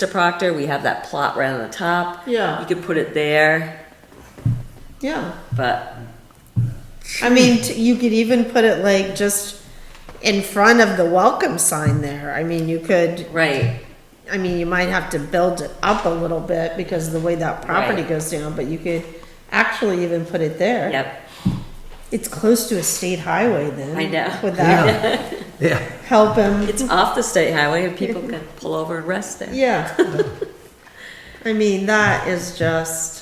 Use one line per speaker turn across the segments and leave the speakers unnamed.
Mr. Proctor, we have that plot right on the top.
Yeah.
You could put it there,
Yeah,
but
I mean, t- you could even put it like just in front of the welcome sign there. I mean, you could,
right,
I mean, you might have to build it up a little bit because of the way that property
Right.
goes down, but you could actually even put it there.
yep,
It's close to a state highway then.
I know.
Would that
Yeah,
help him?
it's off the state highway and people can pull over and rest there.
Yeah. I mean, that is just,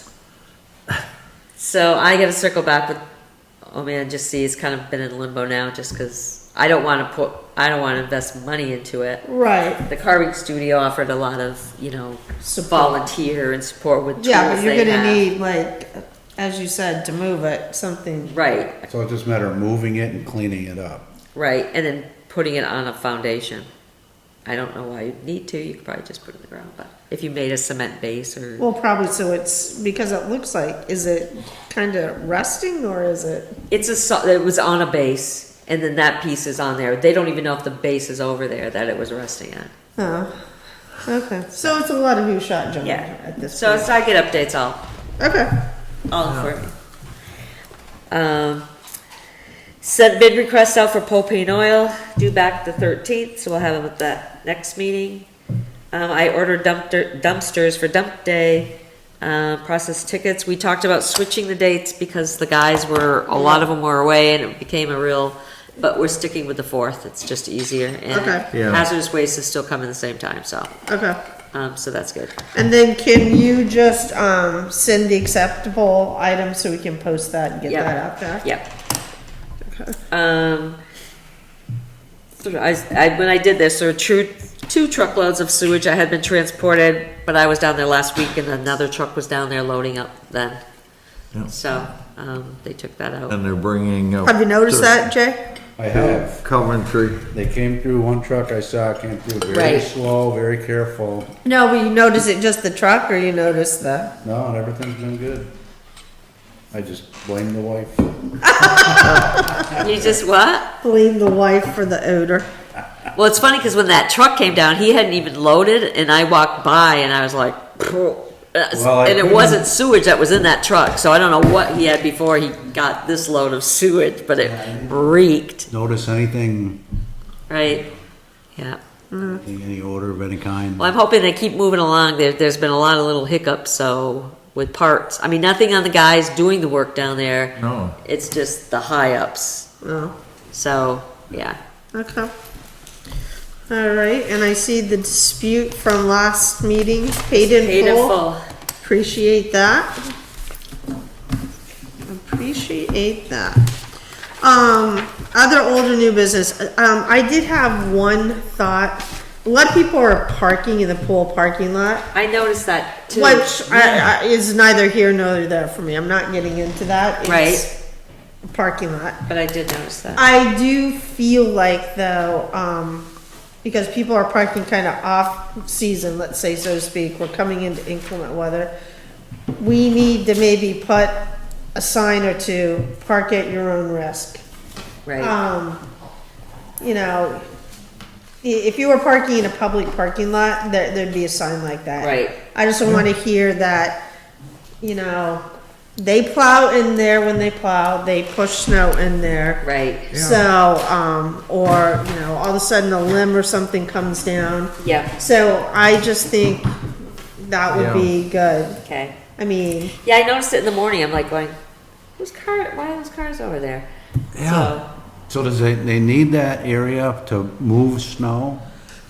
So I gotta circle back with, oh man, just see, it's kind of been in limbo now just because I don't want to put, I don't want to invest money into it.
right.
The carving studio offered a lot of, you know,
Support.
volunteer and support with tools
Yeah, but you're
they
gonna
have.
need like, as you said, to move it, something,
Right,
so it's just a matter of moving it and cleaning it up.
Right, and then putting it on a foundation. I don't know why you'd need to, you could probably just put it in the ground, but if you made a cement base or,
well, probably so it's, because it looks like, is it kinda resting or is it?
it's a, so- it was on a base, and then that piece is on there. They don't even know if the base is over there that it was resting on.
Oh, okay, so it's a lot of who shot John at this
So
point.
as I get updates, I'll,
Okay,
I'll inform you. Um, sent bid requests out for propane oil, due back the thirteenth, so we'll have them at that next meeting. Um, I ordered dumpster, dumpsters for dump day, uh, process tickets. We talked about switching the dates because the guys were, a lot of them were away and it became a real, but we're sticking with the fourth, it's just easier. and
Okay.
Yeah.
Hazardous waste is still coming the same time, so,
okay.
um, so that's good.
And then can you just, um, send the acceptable item so we can post that and get
Yeah.
that out there?
Yep. Um, so I, I, when I did this, there were two, two truckloads of sewage I had been transported, but I was down there last week and another truck was down there loading up then.
Yeah.
So, um, they took that out.
And they're bringing. up
Have you noticed
the-
that, Jay?
I have,
Coventry.
they came through one truck I saw, came through very
Right.
slow, very careful.
No, but you notice it just the truck or you notice the?
No, and everything's been good. I just blame the wife.
You just what?
Blame the wife for the odor.
Well, it's funny because when that truck came down, he hadn't even loaded and I walked by and I was like,
Well, I
and it
couldn't-
wasn't sewage that was in that truck, so I don't know what he had before he got this load of sewage, but it reeked.
Notice anything,
Right, yeah.
any any odor of any kind?
Well, I'm hoping they keep moving along. There, there's been a lot of little hiccups, so with parts, I mean, nothing on the guys doing the work down there.
No.
It's just the high ups.
Oh,
So, yeah.
okay. All right, and I see the dispute from last meeting, paid in
Paid in
full.
full.
Appreciate that. Appreciate that. Um, other older new business, um, I did have one thought. A lot of people are parking in the pool parking lot.
I noticed that too.
Which I, I, is neither here nor there for me. I'm not getting into that. It's
Right.
a Parking lot.
But I did notice that.
I do feel like though, um, because people are parking kind of off season, let's say so to speak, we're coming into inclement weather. We need to maybe put a sign or two, park at your own risk.
Right,
Um, you know, i- if you were parking in a public parking lot, there, there'd be a sign like that.
Right.
I just don't wanna hear that, you know, they plow in there when they plow, they push snow in there.
right.
So, um, or, you know, all of a sudden a limb or something comes down.
Yeah,
So I just think that would be good.
okay.
I mean,
Yeah, I noticed it in the morning. I'm like going, whose car, why are those cars over there?
Yeah. So does they, they need that area to move snow?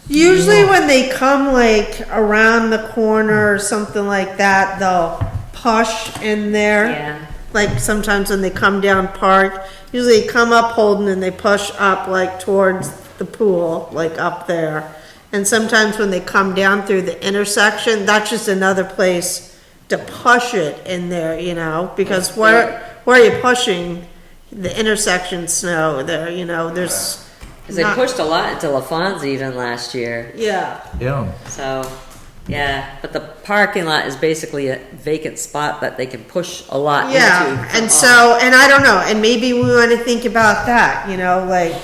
usually when they come like around the corner or something like that, they'll push in
So,
there.
yeah.
Like sometimes when they come down park, usually they come up holding and they push up like towards the pool, like up there. And sometimes when they come down through the intersection, that's just another place to push it in there, you know, because where, where are you pushing? The intersection snow there, you know, there's.
'Cause they
not-
pushed a lot into LaFon's even last year.
Yeah,
Yeah.
So, yeah, but the parking lot is basically a vacant spot that they can push a lot into.
yeah,
from
and
off.
so, and I don't know, and maybe we wanna think about that, you know, like.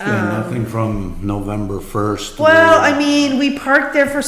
Yeah, nothing from November first.
Well, I mean, we parked there for